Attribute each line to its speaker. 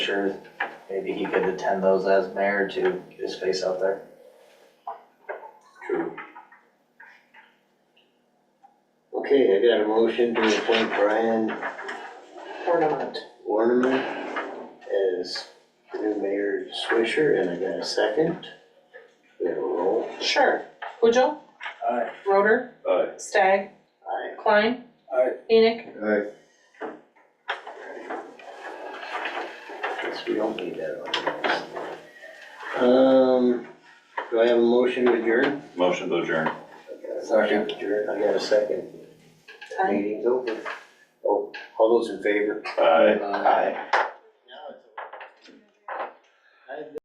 Speaker 1: sure maybe he could attend those as mayor to get his face out there.
Speaker 2: True. Okay, I got a motion to appoint Brian
Speaker 3: ornament.
Speaker 2: Warneman as the new mayor Swisher, and I got a second. We have a roll.
Speaker 3: Sure. Pujo,
Speaker 1: Aye.
Speaker 3: Roder,
Speaker 4: Aye.
Speaker 3: Stag,
Speaker 2: Aye.
Speaker 3: Klein.
Speaker 1: Aye.
Speaker 3: Enoch.
Speaker 4: Aye.
Speaker 2: Guess we don't need that on this. Um, do I have a motion to adjourn?
Speaker 4: Motion to adjourn.
Speaker 2: Motion to Adjourn, I got a second.
Speaker 3: Aye.
Speaker 2: Meeting's over. Oh, all those in favor?
Speaker 4: Aye.
Speaker 2: Aye.